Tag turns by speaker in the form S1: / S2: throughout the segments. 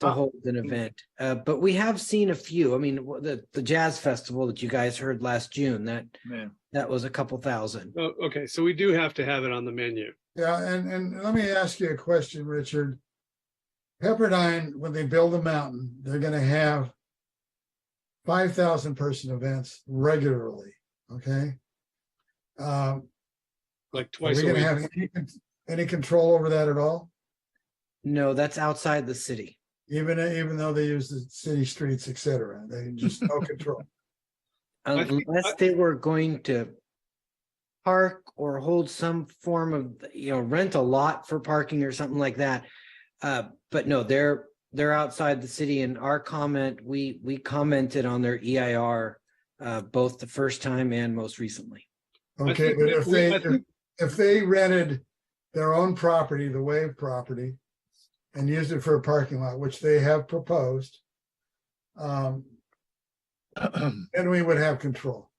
S1: to
S2: Oh.
S1: hold an event. Uh, but we have seen a few. I mean, w- the the jazz festival that you guys heard last June that
S3: Yeah.
S1: that was a couple thousand.
S2: Oh, okay, so we do have to have it on the menu.
S3: Yeah, and, and let me ask you a question, Richard. Pepperdine, when they build the mountain, they're gonna have five thousand person events regularly, okay? Um,
S2: Like
S3: are
S2: twice
S3: we
S2: a
S3: gonna
S2: week.
S3: have any, con- any control over that at all?
S1: No, that's outside the city.
S3: Even, even though they use the city streets, et cetera, they just no control.
S2: think-
S1: Unless they were going to park or hold some form of, you know, rent a lot for parking or something like that. Uh, but no, they're, they're outside the city and our comment, we, we commented on their EIR uh, both the first time and most recently.
S2: I
S3: Okay,
S2: think
S3: but
S2: we-
S3: if
S2: we-
S3: they,
S2: I
S3: if-
S2: think-
S3: if they rented their own property, the Wave property, and used it for a parking lot, which they have proposed, um, then we would have control.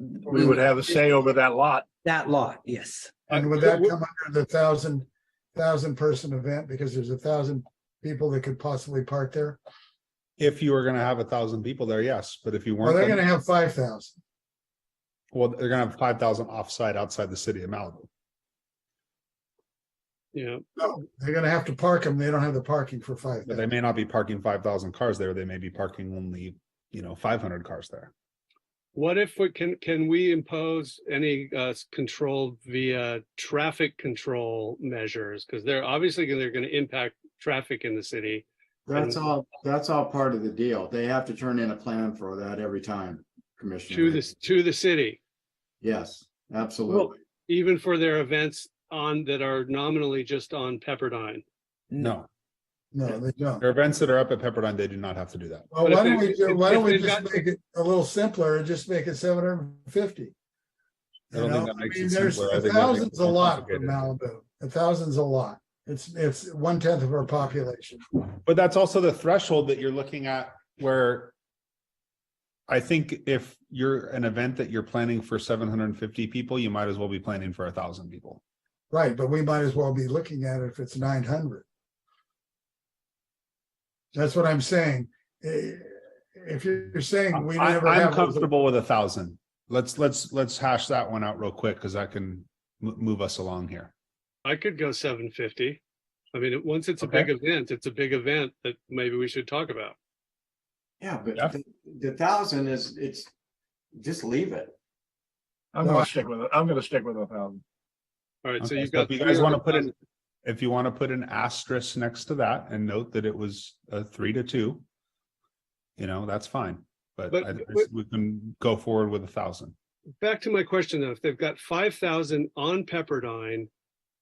S4: We would have a say over that lot.
S1: That lot, yes.
S3: And would
S2: Uh,
S3: that
S2: w-
S3: come under the thousand, thousand person event? Because there's a thousand people that could possibly park there.
S5: If you were gonna have a thousand people there, yes, but if you
S3: Or
S5: weren't,
S3: they're
S5: then-
S3: gonna have five thousand.
S5: well, they're gonna have five thousand offsite outside the city of Malibu.
S2: Yeah,
S3: No, they're gonna have to park them. They don't have the parking for five.
S5: But they may not be parking five thousand cars there. They may be parking only, you know, five hundred cars there.
S2: what if we can, can we impose any uh s- control via traffic control measures? Because they're obviously, gonna- they're gonna impact traffic in the city.
S6: That's
S2: And-
S6: all, that's all part of the deal. They have to turn in a plan for that every time, Commissioner.
S2: to this to the city,
S6: Yes, absolutely.
S2: even for their events on that are nominally just on Pepperdine.
S5: No,
S3: No, they don't.
S5: there are events that are up at Pepperdine. They do not have to do that.
S3: Well,
S2: But if
S3: why don't
S2: they-
S3: we, ju- why
S2: if
S3: don't we
S2: they've
S3: just
S2: got-
S3: make it a little simpler and just make it seven hundred and fifty?
S5: I
S3: You
S5: don't think
S3: know,
S5: that
S3: I
S5: makes
S3: mean,
S5: it
S3: there's
S5: simpler. I
S3: a
S5: think that makes it
S3: thousands a
S5: more
S3: lot for
S5: complicated.
S3: Malibu, a thousands a lot. It's, it's one tenth of our population.
S5: But that's also the threshold that you're looking at where I think if you're an event that you're planning for seven hundred and fifty people, you might as well be planning for a thousand people.
S3: Right, but we might as well be looking at it if it's nine hundred. That's what I'm saying. Eh, If you're saying we
S5: I,
S3: never
S5: I'm
S3: have. those-
S5: comfortable with a thousand. Let's, let's, let's hash that one out real quick because that can mo- move us along here.
S2: I could go seven fifty. I mean, it- once it's a
S5: Okay.
S2: big event, it's a big event that maybe we should talk about.
S6: Yeah, but
S5: Jeff?
S6: the- the thousand is, it's, just leave it.
S4: I'm
S3: No, I-
S4: gonna stick with it. I'm gonna stick with a thousand.
S2: All right, so
S5: Okay,
S2: you've
S5: so
S2: got.
S5: if you
S2: three
S5: guys
S2: other
S5: wanna put
S2: plans.
S5: in- If you want to put an asterisk next to that and note that it was a three to two, you know, that's fine. But
S2: But-
S5: I- I
S2: but-
S5: s- we can go forward with a thousand.
S2: Back to my question though, if they've got five thousand on Pepperdine,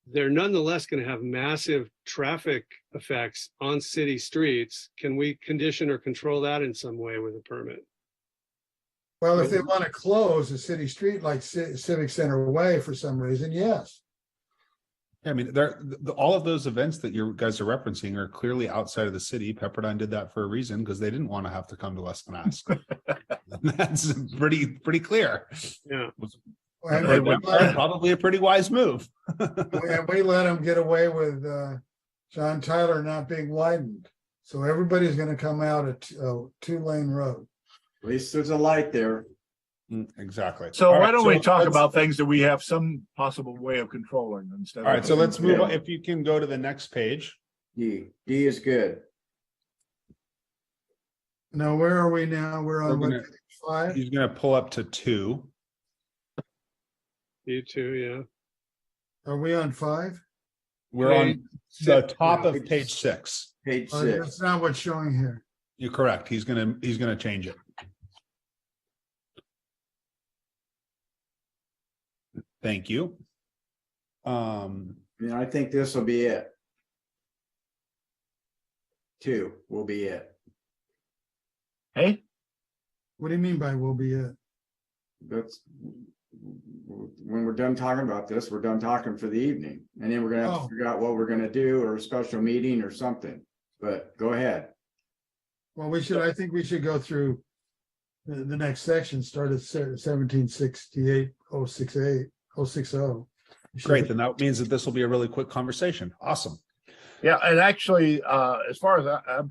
S2: they're nonetheless gonna have massive traffic effects on city streets. Can we condition or control that in some way with a permit?
S3: Well, if they want to close a city street like Ci- Civic Center Way for some reason, yes.
S5: I mean, there, th- th- all of those events that you guys are referencing are clearly outside of the city. Pepperdine did that for a reason because they didn't want to have to come to us and ask. That's pretty, pretty clear.
S2: Yeah,
S3: And
S5: They
S3: we
S5: went for
S3: might-
S5: Probably a pretty wise move.
S3: And we let them get away with uh, John Tyler not being widened. So everybody's gonna come out at a two-lane road.
S6: At least there's a light there.
S5: Mm, Exactly.
S4: So
S5: All
S4: why
S5: right,
S4: don't we
S5: so
S4: talk
S5: let's-
S4: about things that we have some possible way of controlling instead?
S5: All
S4: of-
S5: right, so let's move on.
S6: Yeah.
S5: If you can go to the next page.
S6: D, D is good.
S3: Now, where are we now? We're on
S5: We're
S3: what,
S5: gonna-
S3: page five?
S5: He's gonna pull up to two.
S2: you too, yeah.
S3: Are we on five?
S5: We're on the
S2: six
S5: top
S2: now.
S5: of page six.
S6: Page
S3: Uh,
S6: six.
S3: That's not what's showing here.
S5: You're correct. He's gonna, he's gonna change it. Thank you. Um,
S6: I mean, I think this will be it. Two will be it.
S4: Hey,
S3: What do you mean by will be it?
S6: That's, when we're done talking about this, we're done talking for the evening. And then we're gonna have
S3: Oh.
S6: to figure out what we're gonna do or a special meeting or something. But go ahead.
S3: Well, we should, I think we should go through the, the next section, start at seventeen sixty-eight, oh six eight, oh six oh.
S5: great, then that means that this will be a really quick conversation. Awesome.
S4: yeah, and actually, uh, as far as I, I'm